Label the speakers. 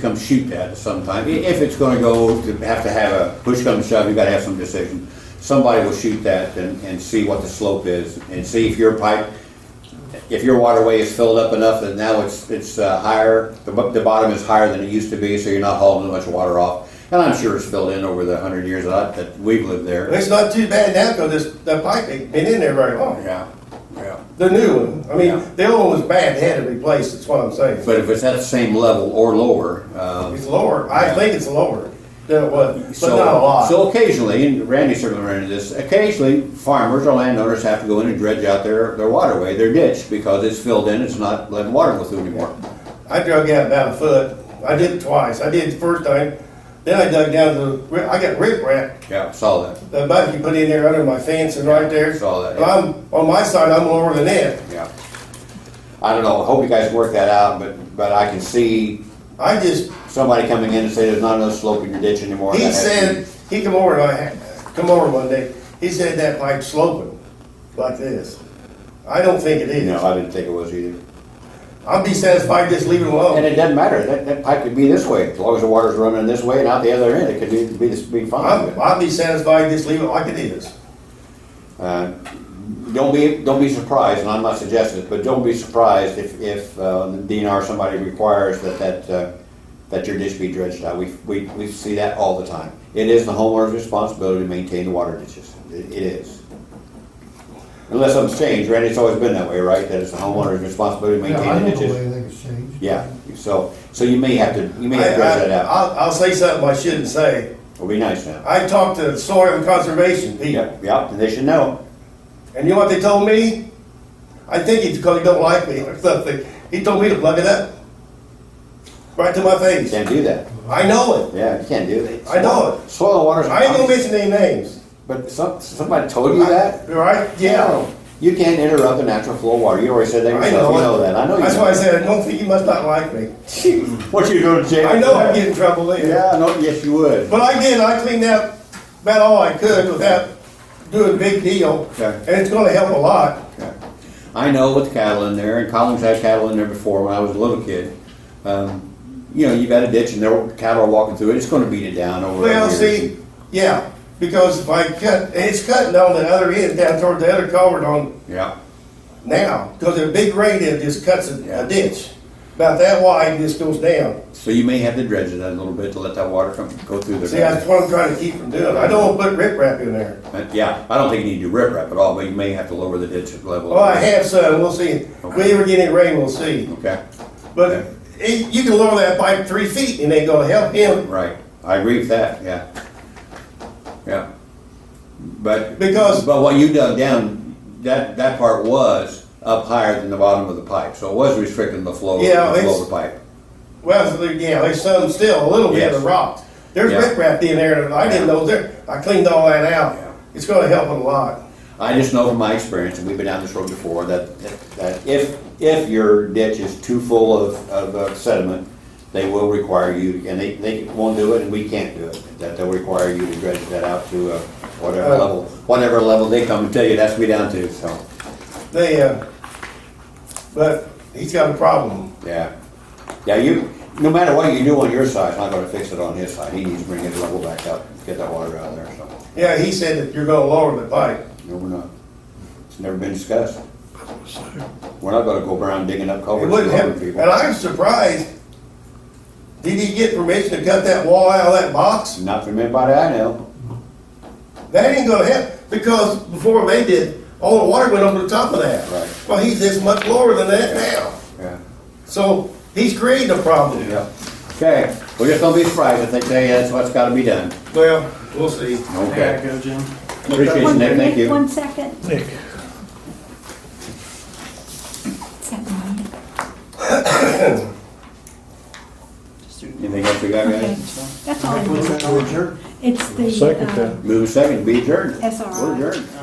Speaker 1: come shoot that sometime. I- If it's gonna go, to have to have a, push come to shove, you gotta have some decision. Somebody will shoot that and, and see what the slope is, and see if your pipe, if your waterway is filled up enough that now it's, it's uh, higher, the, bo- the bottom is higher than it used to be, so you're not hauling as much water off. And I'm sure it's filled in over the hundred years that, that we've lived
Speaker 2: Well,
Speaker 1: there.
Speaker 2: It's not too bad now because this, the pipe ain't been in there very long.
Speaker 1: Yeah, yeah.
Speaker 2: The new one, I
Speaker 1: Yeah.
Speaker 2: mean, the old one was bad, had to replace, that's what I'm saying.
Speaker 1: But if it's at the same level or lower, um,
Speaker 2: It's lower, I
Speaker 1: Yeah.
Speaker 2: think it's lower than it was, but
Speaker 1: So,
Speaker 2: not a lot.
Speaker 1: So occasionally, and Randy certainly ran into this, occasionally farmers or landowners have to go in and dredge out their, their waterway, their ditch, because it's filled in, it's not letting water go through anymore.
Speaker 2: I dug out about a foot, I did it twice, I did it the first time, then I dug down to, I got rip wrap,
Speaker 1: Yeah, saw that.
Speaker 2: the bucket you put in there under my fence and right there.
Speaker 1: Saw that,
Speaker 2: Well, I'm, on my side, I'm lower than that.
Speaker 1: Yeah. I don't know, I hope you guys work that out, but, but I can see
Speaker 2: I just,
Speaker 1: somebody coming in and say there's not enough slope in your ditch anymore.
Speaker 2: he
Speaker 1: That has to be-
Speaker 2: said, he come over, and I, had- come over one day, he said that pipe sloping like this. I don't think it is.
Speaker 1: No, I didn't think it was either.
Speaker 2: I'll be satisfied just leaving it
Speaker 1: And
Speaker 2: alone.
Speaker 1: it doesn't matter, that, that pipe could be this way, as long as the water's running this way and out the other end, it could be, be, be fine.
Speaker 2: I'm, I'll be satisfied just leaving it like it is.
Speaker 1: Uh, Don't be, don't be surprised, and I'm not suggesting it, but don't be surprised if, if uh, the DNR or somebody requires that, that, uh, that your ditch be dredged out. We, we, we see that all the time. It is the homeowner's responsibility to maintain the water ditches. It it is. Unless something's changed, Randy, it's always been that way, right? That it's the homeowner's responsibility to
Speaker 3: Yeah, I
Speaker 1: maintain the
Speaker 3: don't know
Speaker 1: ditches?
Speaker 3: anything has changed.
Speaker 1: Yeah, so, so you may have to, you may have
Speaker 2: I-
Speaker 1: to dredge that
Speaker 2: I-
Speaker 1: out.
Speaker 2: I'll, I'll say something I shouldn't say.
Speaker 1: It'll be nice now.
Speaker 2: I talked to soil conservation people,
Speaker 1: Yep, yep, and they should know.
Speaker 2: and you know what they told me? I think it's because he don't like me or something. He told me to plug it up. Right to my
Speaker 1: You
Speaker 2: face.
Speaker 1: can't do that.
Speaker 2: I know
Speaker 1: Yeah, you can't do that.
Speaker 2: I know it.
Speaker 1: Soil and water's.
Speaker 2: it. I ain't gonna mention any names.
Speaker 1: But some, somebody told you that?
Speaker 2: Right? Yeah.
Speaker 1: You can't interrupt the natural flow of water. You already said that
Speaker 2: I
Speaker 1: yourself.
Speaker 2: know
Speaker 1: You
Speaker 2: it.
Speaker 1: know that. I know you.
Speaker 2: That's
Speaker 1: know
Speaker 2: why I
Speaker 1: that.
Speaker 2: said, I don't think you must not like me.
Speaker 1: What you going to jail?
Speaker 2: I know I'd get in trouble later.
Speaker 1: Yeah, no, yes, you would.
Speaker 2: But I did, I cleaned out about all I could without doing a big deal,
Speaker 1: Okay.
Speaker 2: and it's gonna help a lot.
Speaker 1: Okay. I know with cattle in there, and Collins had cattle in there before when I was a little kid. Um, you know, you got a ditch and there were cattle are walking through it. It's going to beat it down over.
Speaker 2: Well,
Speaker 1: the
Speaker 2: see,
Speaker 1: years.
Speaker 2: yeah, because if I cut, and it's cutting on the other end down toward the other culvert on
Speaker 1: Yeah.
Speaker 2: now, because a big rain, it just cuts a
Speaker 1: Yeah.
Speaker 2: a ditch. About that wide, and just goes down.
Speaker 1: So you may have to dredge it a little bit to let that water come go through there.
Speaker 2: See, that's what I'm trying to keep from doing. I don't wanna put riprap in there.
Speaker 1: Uh, yeah, I don't think you need to rip wrap at all, but you may have to lower the ditch level.
Speaker 2: Well, I have some, we'll see. If we ever get any rain, we'll see.
Speaker 1: Okay.
Speaker 2: But it- you can lower that pipe three feet, and they gonna help him
Speaker 1: Right, I agree with that, yeah. Yeah. But.
Speaker 2: Because-
Speaker 1: But what you dug down, that, that part was up higher than the bottom of the pipe, so it was restricting the flow, the
Speaker 2: Yeah, it's-
Speaker 1: flow of the pipe.
Speaker 2: Well, there- yeah, there's some still, a little bit
Speaker 1: Yes.
Speaker 2: of rocks. There's
Speaker 1: Yeah.
Speaker 2: riprap in there, and I didn't know there, I cleaned all that out.
Speaker 1: Yeah.
Speaker 2: It's gonna help it a lot.
Speaker 1: I just know from my experience, and we've been down this road before, that, that if, if your ditch is too full of, of uh, sediment, they will require you, and they, they won't do it, and we can't do it, that they'll require you to dredge that out to uh, whatever
Speaker 2: Uh.
Speaker 1: level, whatever level they come and tell you that's we down to, so,
Speaker 2: They, uh, but he's got a problem.
Speaker 1: yeah. Yeah, you, no matter what you do on your side, it's not gonna fix it on his side, he needs to bring his level back up, get that water out of there, so,
Speaker 2: Yeah, he said that you're gonna lower the pipe.
Speaker 1: no, we're not, it's never been discussed. We're not gonna go around digging up
Speaker 2: It
Speaker 1: culverts.
Speaker 2: wouldn't
Speaker 1: for other
Speaker 2: help,
Speaker 1: people.
Speaker 2: and I'm surprised. Did he get permission to cut that wall out of that box?
Speaker 1: Not from anybody I know.
Speaker 2: That ain't gonna help, because before they did, all the water went over the top of that.
Speaker 1: Right.
Speaker 2: Well, he's this much lower than that now.
Speaker 1: Yeah.
Speaker 2: So he's creating a problem.
Speaker 1: Yeah. Okay, we're just gonna be surprised if they tell you that's what's gotta be done.
Speaker 2: Well, we'll see.
Speaker 1: Okay.
Speaker 4: go, Jim.
Speaker 1: Appreciate you,
Speaker 5: One
Speaker 1: Nick, thank
Speaker 5: minute,
Speaker 1: you.
Speaker 5: One second. Is that mine?
Speaker 1: Anything else we got,
Speaker 5: Okay,
Speaker 1: guys?
Speaker 5: that's all. I need. It's the.
Speaker 6: Second
Speaker 5: uh,
Speaker 6: then.
Speaker 1: Move a second, be adjourned.
Speaker 5: SRI.
Speaker 1: We're adjourned.